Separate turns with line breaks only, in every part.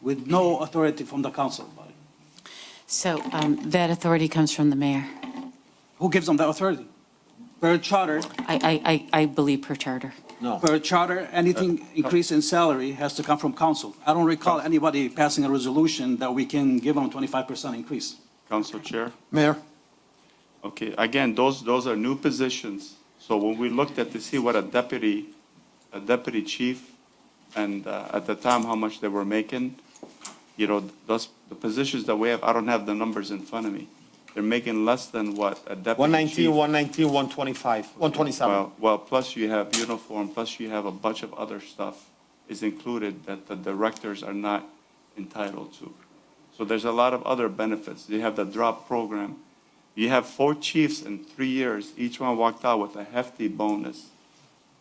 with no authority from the council body.
So um, that authority comes from the mayor.
Who gives them the authority? Per charter,
I, I, I I believe per charter.
No.
per charter, anything increase in salary has to come from council. I don't recall anybody passing a resolution that we can give them 25% increase.
Council Chair?
Mayor?
Okay, again, those, those are new positions. So when we looked at to see what a deputy, a deputy chief, and uh, at the time, how much they were making, you know, those, the positions that we have, I don't have the numbers in front of me. They're making less than what a deputy chief.
119, 119, 125, 127.
Well, well, plus you have uniform, plus you have a bunch of other stuff is included that the directors are not entitled to. So there's a lot of other benefits. You have the drop program. You have four chiefs in three years, each one walked out with a hefty bonus.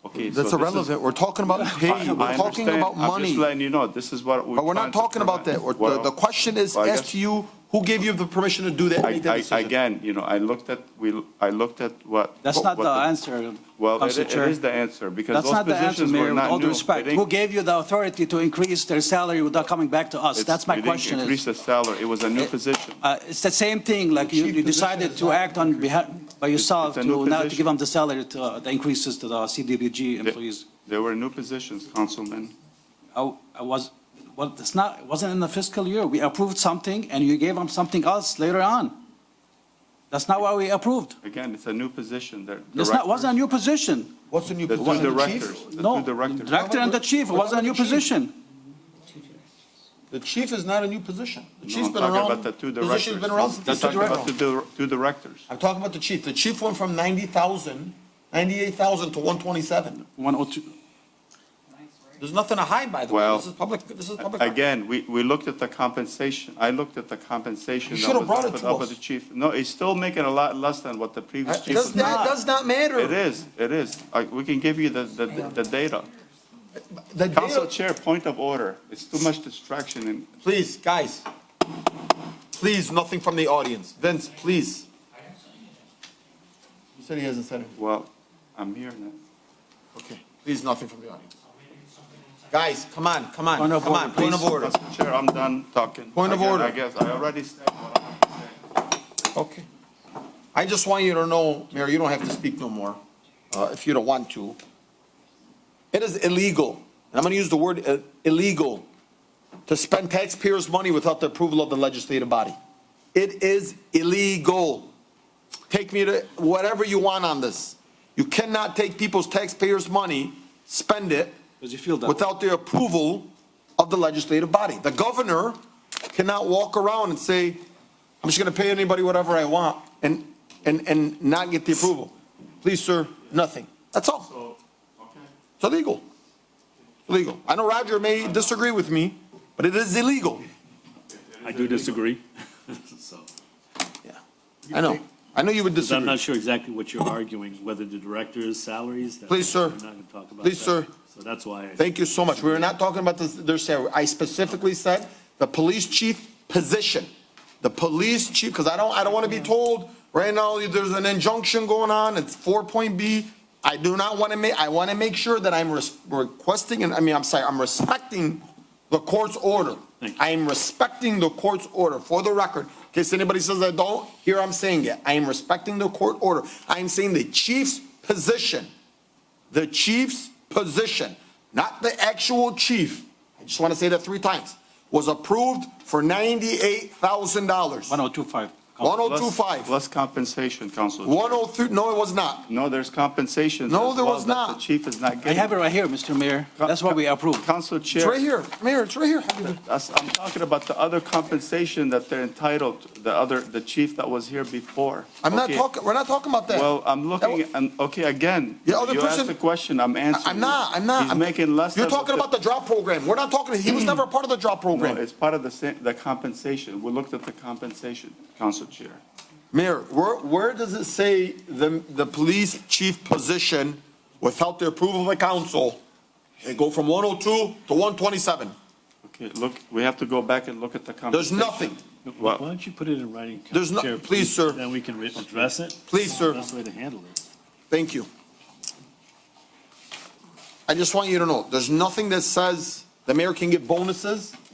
Okay, so
That's
this is-
irrelevant. We're talking about
I-
pay.
I
We're talking
understand.
about
I'm just
money.
letting you know, this is what we.
But we're not talking about that. We're- The, the question is
Well, I
asked
guess-
to you, who gave you the permission to do that, and make that
I, I,
decision?
again, you know, I looked at, we, I looked at what.
That's
what-
not
what
the answer,
Well, it
Council
it is
Chair.
the answer, because
That's
those
not the answer,
positions
Mayor,
were
with all
not
due
new.
respect.
It ain't-
Who gave you the authority to increase their salary without coming back to us?
It's-
That's my
we didn't
question. is-
Increase the salary, it was a new position.
Uh, It's the same thing, like you you decided to act on behalf, by yourself
it's a
to not
new
to
position.
give them the salary, to, uh, the increases to the CDBG employees.
There were new positions, Councilman.
I I was, well, it's not, it wasn't in the fiscal year. We approved something and you gave them something else later on. That's not what we approved.
Again, it's a new position, they're
It's not, wasn't a new position.
What's the new
The
position?
two
The chief?
directors, the
No,
two directors.
director and the chief, it wasn't a new position.
The chief is not a new position. The
No,
chief's
I'm
been
talking
around,
about the two directors.
position's been around since
I'm
the
talking about the
director.
dir- two directors.
I'm talking about the chief. The chief went from 90,000, 98,000 to 127.
102.
There's nothing to hide, by the way.
Well,
This is public, this is public.
Again, we, we looked at the compensation, I looked at the compensation.
You
that was
should've brought it
put
to
up with
us.
the chief. No, he's still making a lot less than what the previous
That
chief
does
was.
not, does not matter.
It is, it is. I- We can give you the, the, the data.
The data-
Council Chair, point of order. It's too much distraction and
Please, guys. Please, nothing from the audience. Vince, please. He said he hasn't said it.
Well, I'm here now.
Okay. Please, nothing from the audience. Guys, come on, come on,
Point of
come
order,
on, point of
please.
order.
Mr. Chair, I'm done talking.
Point of
Again,
order.
I guess I already said what I wanted to say.
Okay. I just want you to know, Mayor, you don't have to speak no more, uh, if you don't want to. It is illegal, and I'm gonna use the word uh, illegal, to spend taxpayers' money without the approval of the legislative body. It is illegal. Take me to whatever you want on this. You cannot take people's taxpayers' money, spend it.
Because you feel that way.
Without the approval of the legislative body. The governor cannot walk around and say, I'm just gonna pay anybody whatever I want and, and, and not get the approval. Please, sir, nothing. That's all. It's illegal. Illegal. I know Roger may disagree with me, but it is illegal.
I do disagree. So,
Yeah. I know. I know you would
'cause I'm
disagree.
not sure exactly what you're arguing, whether the director's salaries. that-
Please, sir.
We're not going to talk about that.
Please, sir.
So that's why. I-
Thank you so much. We were not talking about this, their salary. I specifically said the police chief position. The police chief, because I don't, I don't want to be told, right now, there's an injunction going on, it's four point B. I do not want to make, I want to make sure that I'm res- requesting, and I mean, I'm sorry, I'm respecting the court's order.
Thank you.
I am respecting the court's order, for the record. In case anybody says I don't, here I'm saying it. I am respecting the court order. I am saying the chief's position the chief's position, not the actual chief, I just want to say that three times, was approved for ninety-eight thousand dollars. One
1025.
oh
Plus-
two five.
Plus compensation, Council. Chair.
One oh three, no, it was not.
No, there's compensation.
No,
as
there
well
was
that
not.
The chief is not
I
getting.
have it right here, Mr. Mayor. That's what we approved.
Council
It's right
Chair,
here, Mayor, it's right here.
that's- I'm talking about the other compensation that they're entitled, to, the other, the chief that was here before.
I'm not
Okay.
talking, we're not talking about that.
Well, I'm looking, and, okay, again, you
The other
asked
person-
the question, I'm answering.
I'm
you.
not, I'm not.
He's
I'm-
making less than.
You're talking
what
about the drop program. We're not talking, he was never a part of the drop
No,
program.
it's part of the same, the compensation. We looked at the compensation, Council Chair.
Mayor, where, where does it say the, the police chief position without the approval of the council? It go from one oh two to one twenty-seven.
Okay, look, we have to go back and look at the
There's
compensation.
nothing.
Why don't you put it in writing? Council
There's no-
Chair,
please, sir.
Then we can re- address it.
Please, sir.
Best way to handle it.
Thank you. I just want you to know, there's nothing that says the mayor can give bonuses.